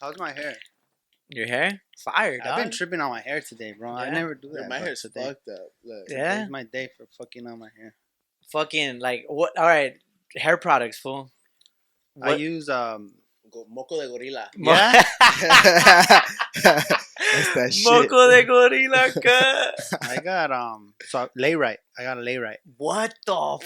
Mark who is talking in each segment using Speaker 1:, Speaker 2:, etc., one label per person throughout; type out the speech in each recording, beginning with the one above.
Speaker 1: How's my hair?
Speaker 2: Your hair? Fire, dog.
Speaker 1: I've been tripping on my hair today, bro. I
Speaker 2: Yeah?
Speaker 1: never do
Speaker 3: Dude,
Speaker 1: that.
Speaker 3: my
Speaker 1: but
Speaker 3: hair's
Speaker 1: today.
Speaker 3: fucked up. Look.
Speaker 2: Yeah.
Speaker 1: Today's my day for fucking on my hair.
Speaker 2: Fucking, like, what? All right. Hair products, fool.
Speaker 1: I
Speaker 2: What-
Speaker 1: use um.
Speaker 3: Go- Moco de gorilla.
Speaker 2: Mo-
Speaker 1: Yeah?
Speaker 3: that shit.
Speaker 2: Moco de gorilla cut.
Speaker 1: I got um. So lay right. I got a lay right.
Speaker 2: What the
Speaker 3: What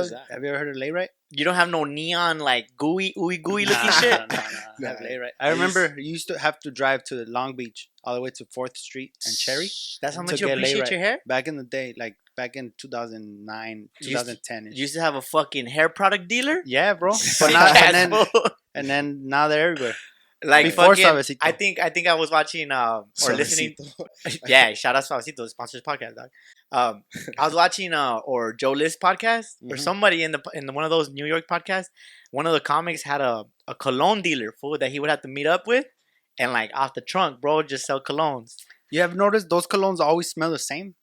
Speaker 3: is
Speaker 2: fuck?
Speaker 3: that?
Speaker 1: Have you ever heard of lay right?
Speaker 2: You don't have no neon, like, gooey, ooey gooey looking
Speaker 1: Nah,
Speaker 2: shit?
Speaker 1: nah, nah, nah.
Speaker 3: Nah.
Speaker 1: I have lay right. I
Speaker 3: I used-
Speaker 1: remember you used to have to drive to Long Beach all the way to Fourth Street and Cherry.
Speaker 2: That's how
Speaker 1: To
Speaker 2: much you
Speaker 1: get laid
Speaker 2: appreciate
Speaker 1: right.
Speaker 2: your hair?
Speaker 1: Back in the day, like back in 2009,
Speaker 2: You used-
Speaker 1: 2010.
Speaker 2: You used to have a fucking hair product dealer?
Speaker 1: yeah, bro. But
Speaker 2: Sick
Speaker 1: not,
Speaker 2: ass
Speaker 1: and then
Speaker 2: fool.
Speaker 1: and then now they're everywhere.
Speaker 2: like
Speaker 1: Before
Speaker 2: fucking,
Speaker 1: Suavecito.
Speaker 2: I think I think I was watching um or listening. yeah, shout out Suavecito, sponsors podcast dog. Um, I was watching uh or Joe List podcast or
Speaker 1: Mhm.
Speaker 2: somebody in the in one of those New York podcasts. One of the comics had a a cologne dealer fool that he would have to meet up with, and like off the trunk, bro, just sell colognes.
Speaker 1: You have noticed those colognes always smell the same.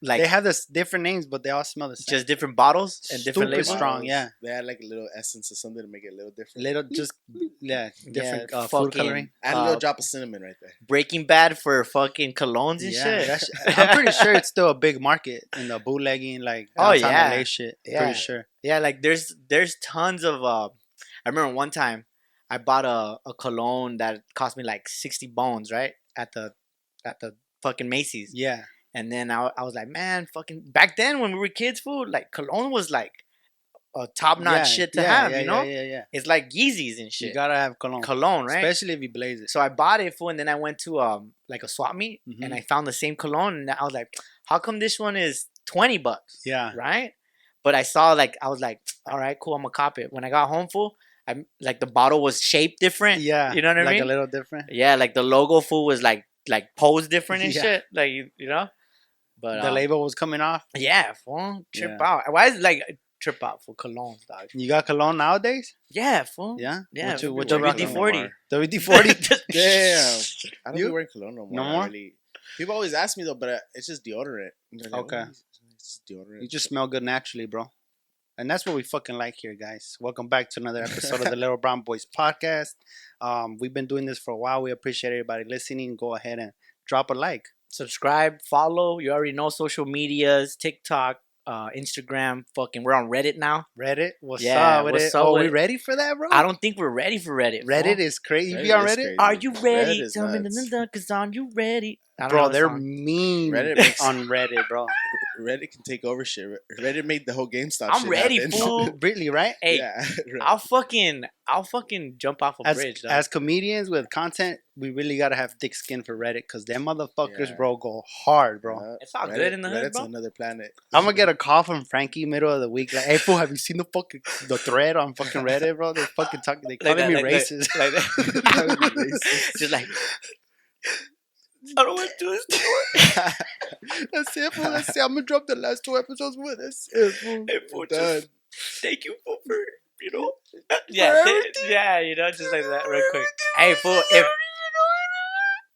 Speaker 2: Like
Speaker 1: they have this different names, but they all smell the same.
Speaker 2: just different bottles and different
Speaker 1: Stupid
Speaker 2: labels.
Speaker 1: strong. yeah.
Speaker 3: They had like a little essence or something to make it a little different.
Speaker 1: little, just yeah, different
Speaker 2: Yeah,
Speaker 1: uh, food
Speaker 2: fucking
Speaker 1: coloring.
Speaker 3: Add a little
Speaker 2: Uh,
Speaker 3: drop of cinnamon right there.
Speaker 2: Breaking Bad for fucking colognes and
Speaker 1: Yeah,
Speaker 2: shit.
Speaker 1: that shit- I'm pretty sure it's still a big market in the bootlegging, like
Speaker 2: Oh,
Speaker 1: downtown
Speaker 2: yeah.
Speaker 1: LA shit.
Speaker 2: Yeah.
Speaker 1: Pretty sure.
Speaker 2: Yeah, like there's there's tons of uh I remember one time I bought a, a cologne that cost me like sixty bones, right? At the at the fucking Macy's.
Speaker 1: Yeah,
Speaker 2: And then I, I was like, man, fucking back then when we were kids, food, like cologne was like a top notch
Speaker 1: Yeah,
Speaker 2: shit to
Speaker 1: yeah,
Speaker 2: have,
Speaker 1: yeah,
Speaker 2: you know?
Speaker 1: Yeah, yeah, yeah.
Speaker 2: It's like Yeezys and shit.
Speaker 1: You gotta have cologne,
Speaker 2: cologne, right?
Speaker 1: especially if you blaze it.
Speaker 2: so I bought it fool, and then I went to um like a swap meet and
Speaker 1: Mhm.
Speaker 2: I found the same cologne and I was like, how come this one is twenty bucks?
Speaker 1: Yeah,
Speaker 2: right? But I saw like I was like, all right, cool, I'm gonna cop it. When I got home, fool, I like the bottle was shaped different. Yeah,
Speaker 1: yeah.
Speaker 2: You know what I
Speaker 1: like
Speaker 2: mean?
Speaker 1: a little different.
Speaker 2: like the logo fool was like like posed different and
Speaker 1: Yeah.
Speaker 2: shit. Like you, you know, but
Speaker 1: the
Speaker 2: um,
Speaker 1: label was coming off.
Speaker 2: yeah, fool, trip
Speaker 1: Yeah.
Speaker 2: out. Why is it, like trip out for colognes, dog?
Speaker 1: You got cologne nowadays?
Speaker 2: Yeah, fool.
Speaker 1: Yeah,
Speaker 2: Yeah,
Speaker 1: What you, what you
Speaker 3: Don't be
Speaker 1: rocking?
Speaker 2: WD forty.
Speaker 1: WD forty.
Speaker 3: Damn. I don't
Speaker 1: You?
Speaker 3: be wearing cologne no more.
Speaker 1: No
Speaker 3: I
Speaker 1: more?
Speaker 3: really- People always ask me though, but uh, it's just deodorant. And they're like,
Speaker 1: Okay.
Speaker 3: "Oh, It's just deodorant.
Speaker 1: You just smell good naturally, bro. And that's what we fucking like here, guys. Welcome back to another episode of the Little Brown Boys podcast. Um, we've been doing this for a while. We appreciate everybody listening. Go ahead and drop a like.
Speaker 2: Subscribe, follow. You already know social medias, TikTok, uh, Instagram. Fucking, we're on Reddit now.
Speaker 1: Reddit, what's
Speaker 2: Yeah,
Speaker 1: up with
Speaker 2: what's
Speaker 1: it?
Speaker 2: up
Speaker 1: oh,
Speaker 2: with
Speaker 1: we
Speaker 2: it?
Speaker 1: ready for that, bro?
Speaker 2: I don't think we're ready for Reddit. fool.
Speaker 1: Oh. Reddit is crazy. You be
Speaker 3: Reddit
Speaker 1: on
Speaker 3: is
Speaker 1: Reddit,
Speaker 3: crazy.
Speaker 2: Are you
Speaker 3: Reddit
Speaker 2: ready?
Speaker 3: is
Speaker 2: Tell me the
Speaker 3: nuts.
Speaker 2: number, cause I'm you ready. I don't know
Speaker 1: bro?
Speaker 2: the
Speaker 1: They're
Speaker 2: song.
Speaker 1: mean
Speaker 3: Reddit makes-
Speaker 1: on Reddit, bro.
Speaker 3: Reddit can take over shit. Re- Reddit made the whole GameStop.
Speaker 2: I'm
Speaker 3: shit
Speaker 2: ready,
Speaker 3: happen.
Speaker 2: fool.
Speaker 1: really, right?
Speaker 2: hey,
Speaker 3: Yeah, right.
Speaker 2: I'll fucking, I'll fucking jump off a
Speaker 1: As,
Speaker 2: bridge. dog.
Speaker 1: as comedians with content, we really gotta have thick skin for Reddit because them motherfuckers,
Speaker 3: Yeah.
Speaker 1: bro, go hard, bro.
Speaker 3: Yeah.
Speaker 2: it's all
Speaker 3: Reddit-
Speaker 2: good in the hood,
Speaker 3: Reddit's
Speaker 2: bro.
Speaker 3: another planet.
Speaker 1: I'm gonna get a call from Frankie middle of the week. Like, hey, fool, have you seen the fucking the thread on fucking Reddit, bro? They're fucking talking. They
Speaker 2: Like
Speaker 1: calling me
Speaker 2: that, like that.
Speaker 1: racist.
Speaker 2: like that. just like. I don't want to do this.
Speaker 1: that's it, fool. That's it. I'm gonna drop the last two episodes with us. It, fool.
Speaker 2: Hey, fool,
Speaker 1: Done.
Speaker 2: just thank you fool, for, you know. Yeah, th- yeah, you know, just like that, real quick. Hey, fool, if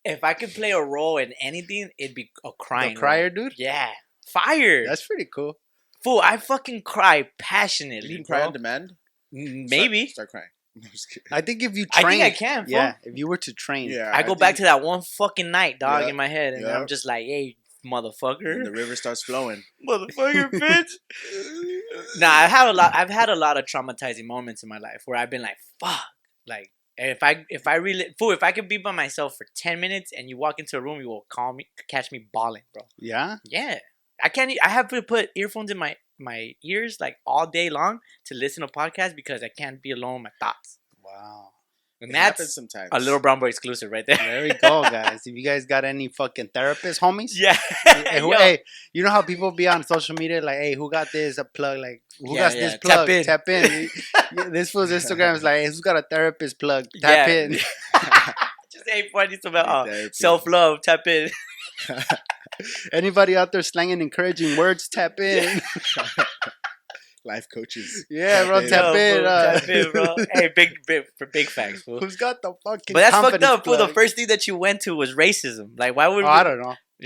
Speaker 2: if I could play a role in anything, it'd be a crying.
Speaker 1: The
Speaker 2: role.
Speaker 1: crier, dude.
Speaker 2: Yeah, fire.
Speaker 1: That's pretty cool.
Speaker 2: Fool, I fucking cry
Speaker 3: You
Speaker 2: passionately.
Speaker 3: can cry
Speaker 2: bro.
Speaker 3: on demand.
Speaker 2: Mm,
Speaker 3: Start-
Speaker 2: Maybe.
Speaker 3: Start, crying. I'm just kidding.
Speaker 1: I think if you
Speaker 2: I
Speaker 1: train,
Speaker 2: think I can. Fool.
Speaker 1: yeah, if you were to train,
Speaker 3: Yeah.
Speaker 2: I go back
Speaker 3: think
Speaker 2: to that one fucking night, dog,
Speaker 3: Yeah,
Speaker 2: in my head, and
Speaker 3: yeah.
Speaker 2: I'm just like, "Hey,
Speaker 3: when
Speaker 2: motherfucker,
Speaker 3: the river starts flowing.
Speaker 2: motherfucker, bitch." nah, I've had a lot. I've had a lot of traumatizing moments in my life where I've been like, "Fuck," like. and If I if I really fool if I could be by myself for ten minutes and you walk into a room you will call me catch me bawling bro
Speaker 1: yeah.
Speaker 2: yeah I can't e- I have to put earphones in my my ears like all day long to listen to podcasts because I can't be alone with my thoughts
Speaker 1: Wow.
Speaker 2: and
Speaker 3: It happens
Speaker 2: that's
Speaker 3: sometimes.
Speaker 2: a little brown boy exclusive right there
Speaker 1: There we go, guys. if you guys got any fucking therapists, homies,
Speaker 2: Yeah.
Speaker 1: Hey, who,
Speaker 2: Yo.
Speaker 1: hey, you know how people be on social media like, hey, who got this a plug? Like, who
Speaker 2: Yeah,
Speaker 1: got
Speaker 2: yeah,
Speaker 1: this
Speaker 2: tap
Speaker 1: plug?
Speaker 2: in.
Speaker 1: Tap in. Yeah, this fool's Instagram is like, hey, who's got a therapist plug? Tap
Speaker 2: Yeah.
Speaker 1: in.
Speaker 2: Just ain't funny about uh,
Speaker 3: Therapy.
Speaker 2: self love. Tap in.
Speaker 1: Anybody out there slanging encouraging words? Tap in.
Speaker 3: life coaches.
Speaker 1: Yeah, bro,
Speaker 3: Tap in.
Speaker 1: tap in. uh,
Speaker 2: Yo, fool, Tap in, bro. hey, big, big for big facts, fool.
Speaker 1: Who's got the fucking?
Speaker 2: But that's fucked
Speaker 1: confidence
Speaker 2: up. Fool. The
Speaker 1: plug?
Speaker 2: first thing that you went to was racism. Like, why would
Speaker 1: Oh, I
Speaker 2: we,
Speaker 1: don't know.